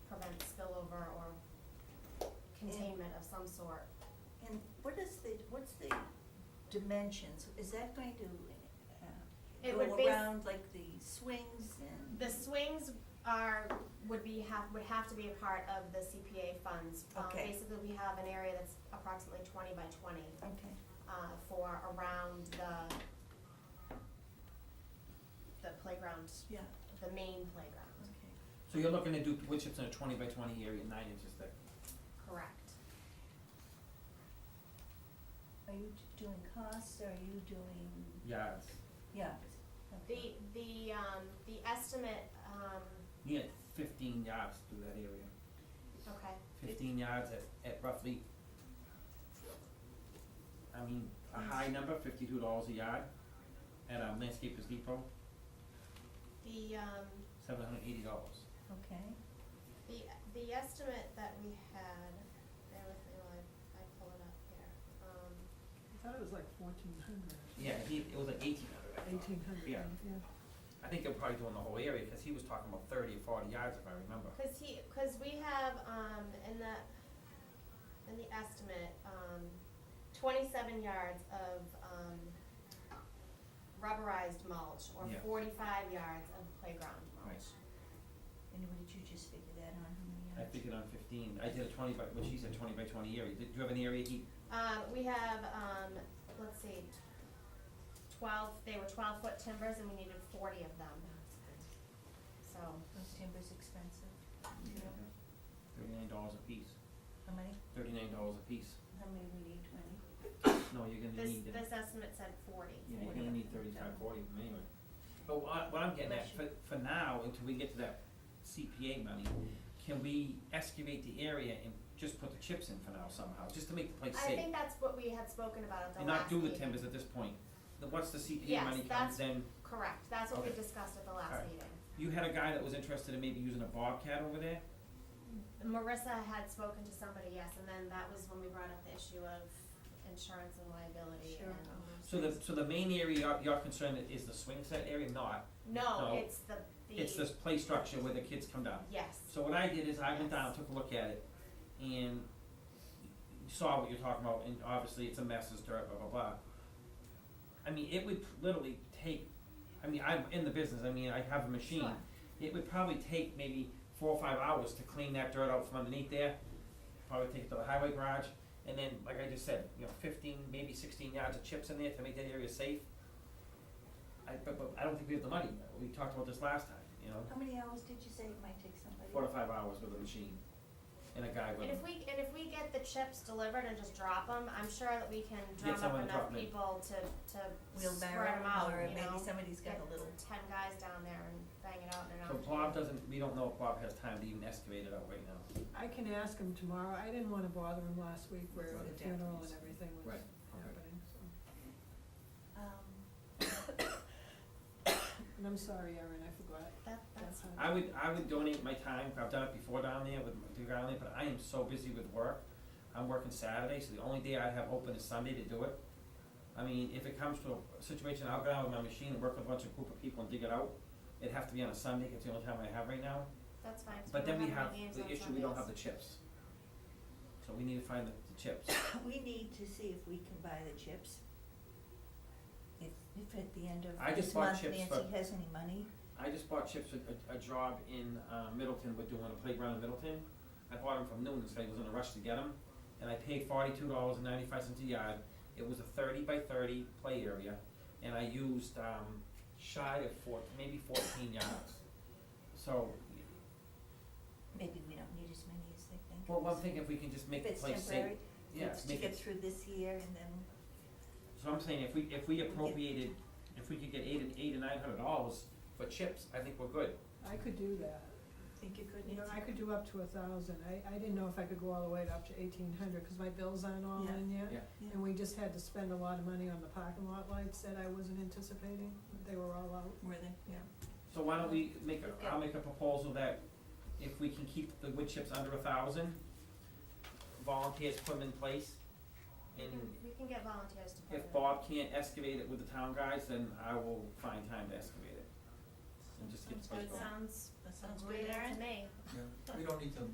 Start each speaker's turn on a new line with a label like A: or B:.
A: of some sort.
B: And what is the, what's the dimensions? Is that going to uh,
A: It would bas-
B: go around like the swings and?
A: The swings are, would be, have, would have to be a part of the CPA funds. Um,
B: Okay.
A: Basically, we have an area that's approximately twenty by twenty,
B: Okay,
A: uh, for around the, the playground,
B: yeah,
A: the main playground,
B: okay.
C: So you're looking to do wood chips in a twenty by twenty area, nine inches thick.
A: correct.
B: Are you d- doing costs, are you doing,
C: Yeah. it's-
B: yeah, okay.
A: The, the, um, the estimate, um,
C: You get fifteen yards through that area.
A: okay,
C: Fifteen yards at, at roughly, I mean, a high number, fifty-two dollars a yard at um, Landscapers Depot,
A: the, um,
C: seven hundred eighty dollars.
B: Okay,
A: the, the estimate that we had, bear with me while I, I pull it up here, um.
D: I thought it was like fourteen hundred.
C: Yeah, he, it was like eighteen hundred, I thought.
D: Eighteen hundred,
C: Yeah.
D: yeah.
C: I think they're probably doing the whole area, cause he was talking about thirty or forty yards if I remember.
A: Cause he, cause we have, um, in the, in the estimate, um, twenty-seven yards of, um, rubberized mulch or
C: Yeah.
A: forty-five yards of playground mulch.
C: Right.
B: and what did you just figure that on, how many
C: I
B: yards?
C: figured on fifteen, I did a twenty by, what she said, twenty by twenty area, did do you have an area he,
A: Um, we have, um, let's see, twelve, they were twelve-foot timbers and we needed forty of them, so,
B: Those timbers expensive,
C: thirty-nine dollars a piece,
B: how many,
C: thirty-nine dollars a piece,
B: how many we need, twenty?
C: no, you're gonna
A: this,
C: need, uh,
A: this estimate said forty.
C: yeah, you're
B: Forty.
C: gonna need thirty-five, forty of them anyway. But what, what I'm getting at, for, for now, until we get to that CPA money, can we excavate the area and just put the chips in for now somehow, just to make the place
A: I
C: safe?
A: think that's what we had spoken about at the
C: And
A: last
C: not do
A: meeting.
C: the timbers at this point, The- once the CPA
A: Yes,
C: money
A: that's-
C: comes, then,
A: Correct, that's what we
C: Okay.
A: discussed at the last
C: Alright.
A: meeting.
C: you had a guy that was interested in maybe using a bobcat over there?
A: Marissa had spoken to somebody, yes, and then that was when we brought up the issue of insurance and liability
B: Sure.
A: and all those
C: So the,
A: things.
C: so the main area you're, you're concerned is the swing set area, not,
A: No,
C: no,
A: it's the, the.
C: it's this play structure where the kids come down.
A: Yes,
C: So what I did is I went down, took a look at it, and saw what you're talking about, and obviously it's a mess, it's dirt, blah, blah, blah. I mean, it would literally take, I mean, I'm in the business, I mean, I have a machine.
A: Sure.
C: It would probably take maybe four or five hours to clean that dirt out from underneath there, probably take it to the highway garage, and then, like I just said, you know, fifteen, maybe sixteen yards of chips in there to make that area safe. I, but, but I don't think we have the money, we talked about this last time, you know?
B: How many hours did you say it might take somebody?
C: four to five hours with a machine and a guy with
A: and
C: him.
A: if we, and if we get the chips delivered and just drop them, I'm sure that we can drum up
C: someone to
A: enough
C: drop 'em in.
A: people to, to
B: Wheelbarrow,
A: spread them out,
B: or
A: you
B: maybe
A: know?
B: somebody's got a little,
A: Get ten guys down there and bang it out in an
C: So
A: afternoon.
C: Bob doesn't, we don't know if Bob has time to even excavate it out right now.
D: I can ask him tomorrow, I didn't wanna bother him last week where
C: Right.
D: the funeral and everything was
C: Right, okay.
D: happening, so.
B: um,
D: And I'm sorry, Erin, I forgot.
A: That, that's,
D: That's
C: I would, I would donate my time, I've done it before down there with, the guy down there, but I am so busy with work. I'm working Saturday, so the only day I have open is Sunday to do it. I mean, if it comes to a situation, I'll go down with my machine and work with a bunch of group of people and dig it out. It'd have to be on a Sunday, 'cause it's the only time I have right now.
A: that's fine, so
C: But then we
A: don't
C: have,
A: any games on
C: the issue, we don't have the
A: Sundays.
C: chips. So we need to find the, the chips.
B: We need to see if we can buy the chips. If, if at the end
C: I
B: of
C: just
B: this
C: bought
B: month
C: chips
B: Nancy
C: for-
B: has any money,
C: I just bought chips a, a, a job in uh, Middleton. We're doing a playground in Middleton. I bought them from Noon, so I was in a rush to get them, and I paid forty-two dollars and ninety-five cents a yard. It was a thirty by thirty play area, and I used um, shy of four, maybe fourteen yards. So,
B: maybe we don't need as many as they think.
C: well, I'm thinking if we can just make the place
B: If it's
C: safe.
B: temporary,
C: Yeah,
B: it's to
C: make
B: get
C: it,
B: through this year and then,
C: so I'm saying if we, if we appropriated, if we could get eight, and- eight or nine hundred dollars for chips, I think we're good.
D: I could do that,
B: think you could
D: you
B: need
D: know,
B: to.
D: I could do up to a thousand, I, I didn't know if I could go all the way to up to eighteen hundred, cause my bills aren't all
B: Yeah.
D: in yet.
C: Yeah.
B: Yeah.
D: And we just had to spend a lot of money on the parking lot lights that I wasn't anticipating, they were all out.
B: Were they, yeah.
C: So why don't we make a, I'll make a proposal that if we can keep the wood chips under a thousand, volunteers put them in place.
A: We
C: And
A: can, we can get volunteers to put it.
C: if Bob can't excavate it with the town guys, then I will find time to excavate it. And just get the place
A: That
C: going.
A: sounds,
B: That
A: sounds great to me.
E: Yeah, we don't need to